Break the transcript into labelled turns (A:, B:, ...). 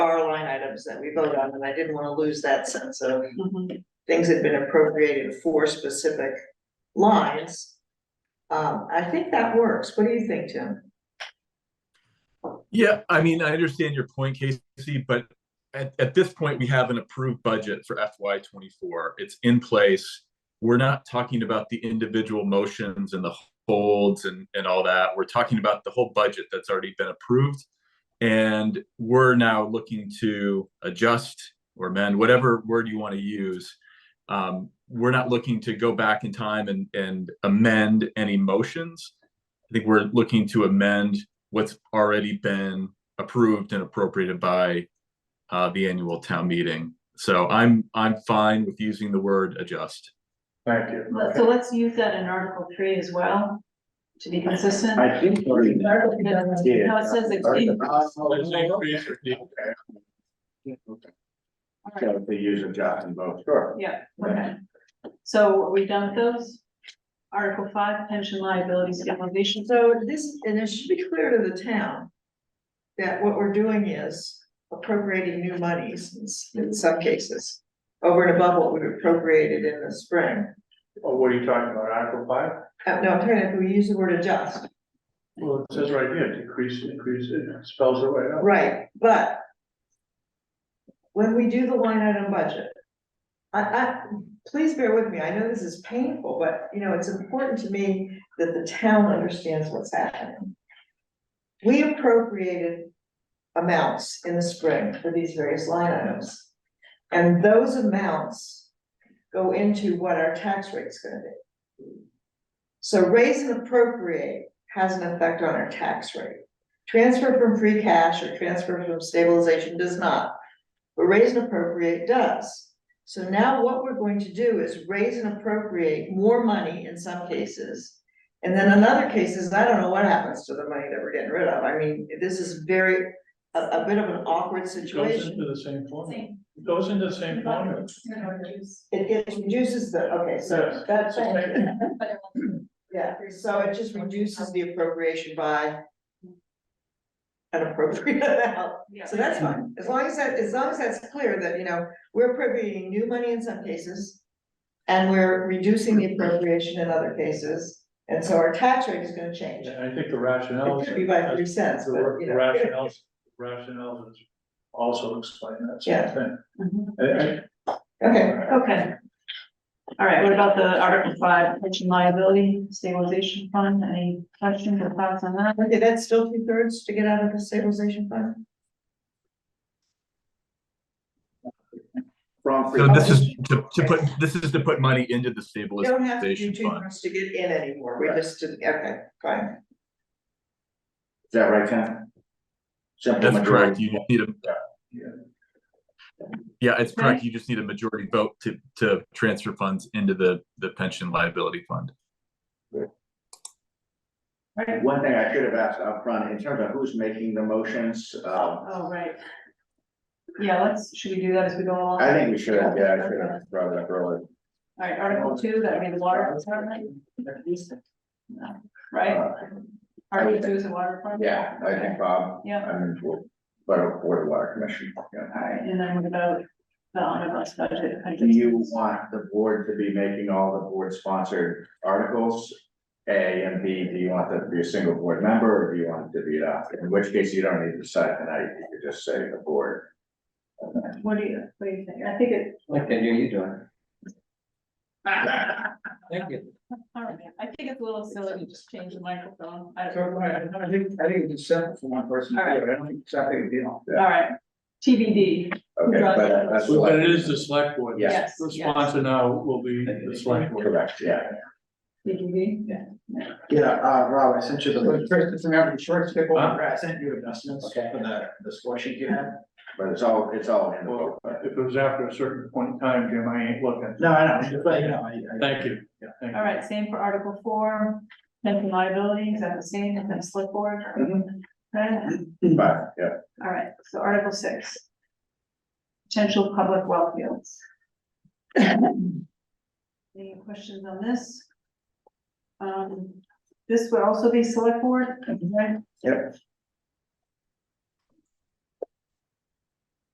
A: items that we vote on, and I didn't wanna lose that sense of things had been appropriated for specific lines. Um, I think that works. What do you think, Tim?
B: Yeah, I mean, I understand your point, Casey, but at, at this point, we have an approved budget for FY twenty-four. It's in place. We're not talking about the individual motions and the holds and, and all that. We're talking about the whole budget that's already been approved. And we're now looking to adjust or amend, whatever word you want to use. Um, we're not looking to go back in time and, and amend any motions. I think we're looking to amend what's already been approved and appropriated by uh, the annual town meeting. So I'm, I'm fine with using the word adjust.
C: Thank you.
D: Let- So let's use that in Article three as well, to be consistent.
C: I think. we-
D: Article three doesn't-
C: Yeah.
D: No, it says it's-
C: Okay. So if they use a job and vote, sure.
D: Yeah, okay. So are we done with those? Article five, pension liability stabilization.
A: So this, and it should be clear to the town that what we're doing is appropriating new monies in s- in some cases. Over and above what we appropriated in the spring.
E: Oh, what are you talking about, Article five?
A: Uh, no, I'm trying to, we use the word adjust,
E: Well, it says right here, decrease, increase, it spells it right out.
A: right, but when we do the line item budget, I, I, please bear with me, I know this is painful, but, you know, it's important to me that the town understands what's happening. We appropriated amounts in the spring for these various line items. And those amounts go into what our tax rate's gonna be. So raise and appropriate has an effect on our tax rate. Transfer from free cash or transfer from stabilization does not. But raise and appropriate does. So now what we're going to do is raise and appropriate more money in some cases. And then in other cases, I don't know what happens to the money that we're getting rid of. I mean, this is very, a, a bit of an awkward
E: It goes
A: situation.
E: into the same formula, it goes into the same formula.
A: It gets reduces the, okay, so that's,
E: Yes.
D: But
A: yeah, so it just reduces the appropriation by an appropriate amount,
D: Yeah.
A: so that's fine, as long as that, as long as that's clear that, you know, we're appropriating new money in some cases. And we're reducing the appropriation in other cases, and so our tax rate is gonna change,
E: And I think the rationale.
A: it could be by three cents,
E: The
A: but, you know.
E: rationale, rationale is also explain that
A: Yeah.
E: same thing.
D: Mhm.
E: I-
A: Okay,
E: I-
D: Okay. All right, what about the Article five, pension liability stabilization fund? Any questions or thoughts on that?
A: okay, that's still two thirds to get out of the stabilization fund?
C: From.
B: So this is to, to put, this is to put money into the
A: You don't have to do
B: stabilization
A: two
B: fund.
A: thirds to get in anymore, we just, did- okay, fine.
C: Is that right, Ken? Simple
B: That's correct.
C: majority.
B: You just need a.
E: Yeah.
B: Yeah, it's correct. You just need a majority vote to, to transfer funds into the, the pension liability fund.
D: Right?
C: One thing I should have asked upfront, in terms of who's making the motions, uh,
D: Oh, right. Yeah, let's, should we do that as we go along?
C: I think we should have, yeah, I should have brought that earlier.
D: All right, Article two, that would be the water department, right?
C: Uh,
D: Article two is the water department?
C: Yeah, I think Bob,
D: Yeah.
C: I'm in for, for for the water commission, yeah.
D: All right, and then what about the omnibus budget? I
C: Do
D: just-
C: you want the board to be making all the board sponsored articles? A and B, do you want that to be a single board member or do you want it to be it off? In which case you don't need to decide tonight, you could just say the board.
D: What do you, what do you think? I think it,
F: Like that, you're you doing. Thank you.
D: all right, I think it's a little silly to just change the microphone. I
F: So,
D: don't-
F: I, I think, I think it's simple for one person to do it, I don't think it's that big a deal.
D: All right, TBD,
C: Okay,
D: Right.
C: but uh, that's
E: But it
C: what,
E: is the select board.
C: Yeah.
D: yes,
E: The
D: yes,
E: sponsor now will be the select board.
C: correct, yeah.
D: TBD.
F: Yeah, uh, Rob, I sent you the. First, it's American short stick
E: Huh?
F: I sent you adjustments for the, the score sheet you had.
C: But it's all, it's all in the book.
E: Well, if it was after a certain point in time, Jim, I ain't looking.
F: No, I know, but you know, I, I.
E: Thank you. Thank you.
D: All right, same for Article four, pension liability, is that the same, and then slip board?
F: Mm-hmm.
D: Right?
C: But, yeah,
D: All right, so Article six. Potential public well fields. Any questions on this? Um, this would also be select board, right?
C: Yep.